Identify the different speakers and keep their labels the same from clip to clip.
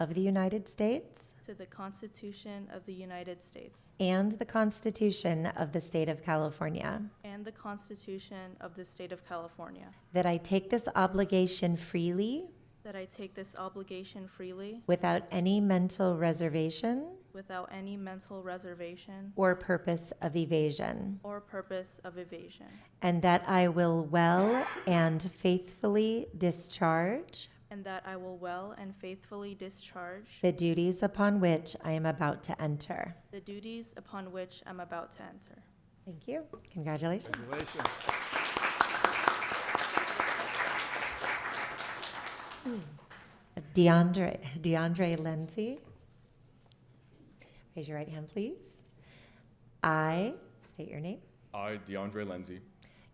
Speaker 1: of the United States
Speaker 2: to the Constitution of the United States
Speaker 1: and the Constitution of the State of California,
Speaker 2: and the Constitution of the State of California,
Speaker 1: that I take this obligation freely
Speaker 2: that I take this obligation freely
Speaker 1: without any mental reservation
Speaker 2: without any mental reservation
Speaker 1: or purpose of evasion,
Speaker 2: or purpose of evasion,
Speaker 1: and that I will well and faithfully discharge
Speaker 2: and that I will well and faithfully discharge
Speaker 1: the duties upon which I am about to enter.
Speaker 2: the duties upon which I'm about to enter.
Speaker 1: Thank you. Congratulations.
Speaker 3: Congratulations.
Speaker 1: DeAndre, DeAndre Lindsay. Raise your right hand, please. I, state your name,
Speaker 4: I, DeAndre Lindsay,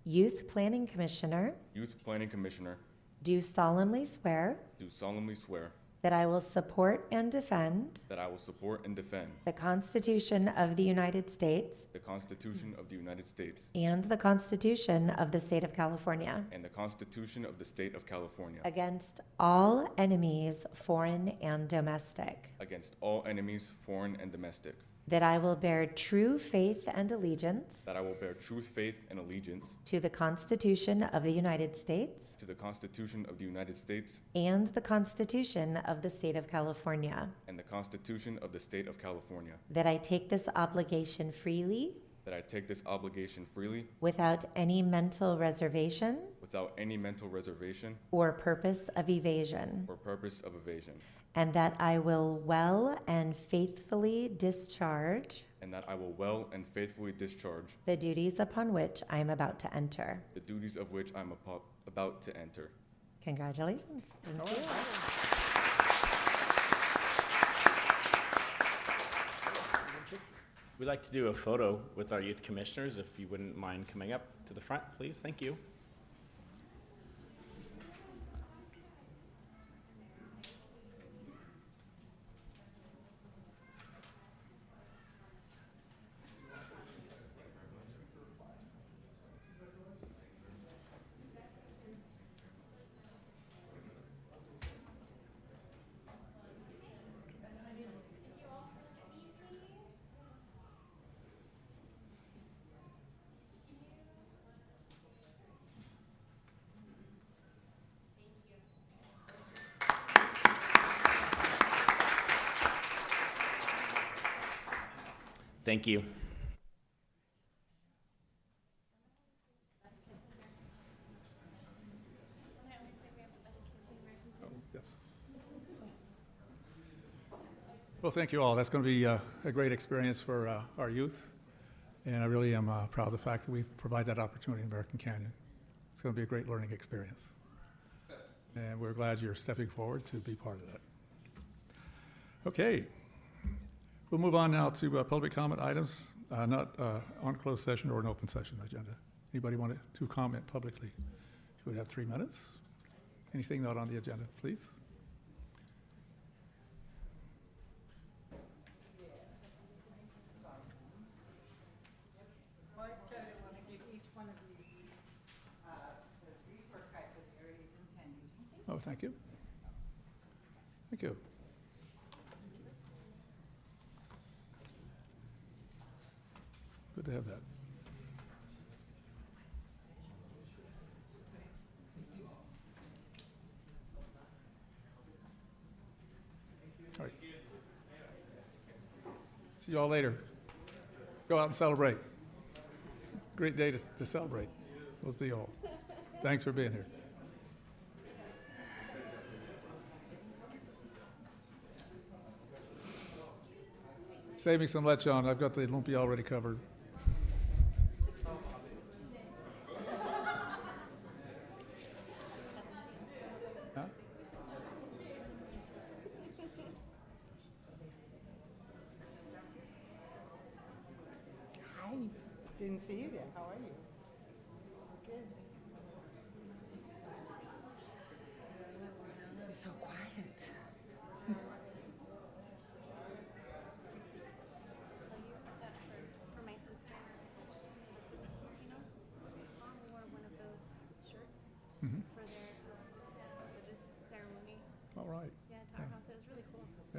Speaker 1: Youth Planning Commissioner,
Speaker 4: Youth Planning Commissioner,
Speaker 1: do solemnly swear
Speaker 4: do solemnly swear
Speaker 1: that I will support and defend
Speaker 4: that I will support and defend
Speaker 1: the Constitution of the United States
Speaker 4: the Constitution of the United States
Speaker 1: and the Constitution of the State of California
Speaker 4: and the Constitution of the State of California
Speaker 1: against all enemies, foreign and domestic,
Speaker 4: against all enemies, foreign and domestic,
Speaker 1: that I will bear true faith and allegiance
Speaker 4: that I will bear true faith and allegiance
Speaker 1: to the Constitution of the United States
Speaker 4: to the Constitution of the United States
Speaker 1: And the Constitution of the State of California.
Speaker 4: and the Constitution of the State of California,
Speaker 1: That I take this obligation freely,
Speaker 4: that I take this obligation freely
Speaker 1: without any mental reservation
Speaker 4: without any mental reservation
Speaker 1: or purpose of evasion.
Speaker 4: or purpose of evasion,
Speaker 1: And that I will well and faithfully discharge
Speaker 4: and that I will well and faithfully discharge
Speaker 1: the duties upon which I am about to enter.
Speaker 4: the duties of which I am apo- about to enter.
Speaker 1: Congratulations. Thank you.
Speaker 5: We'd like to do a photo with our youth commissioners, if you wouldn't mind coming up to the front, please. Thank you. Thank you.
Speaker 3: Yes. Well, thank you all. That's going to be uh, a great experience for uh, our youth, and I really am uh, proud of the fact that we provide that opportunity in American Canyon. It's going to be a great learning experience, and we're glad you're stepping forward to be part of that. Okay, we'll move on now to uh, public comment items, uh, not uh, on closed session or an open session agenda. Anybody want to comment publicly? You would have three minutes. Anything not on the agenda, please?
Speaker 6: Well, I started, I want to give each one of you each, uh, the resource guide for the area you intend using.
Speaker 3: Oh, thank you. Thank you. Good to have that. All right. See y'all later. Go out and celebrate. Great day to, to celebrate. We'll see y'all. Thanks for being here. Save me some lechon. I've got the lumpy already covered. Huh?
Speaker 6: Hi, didn't see you there, how are you?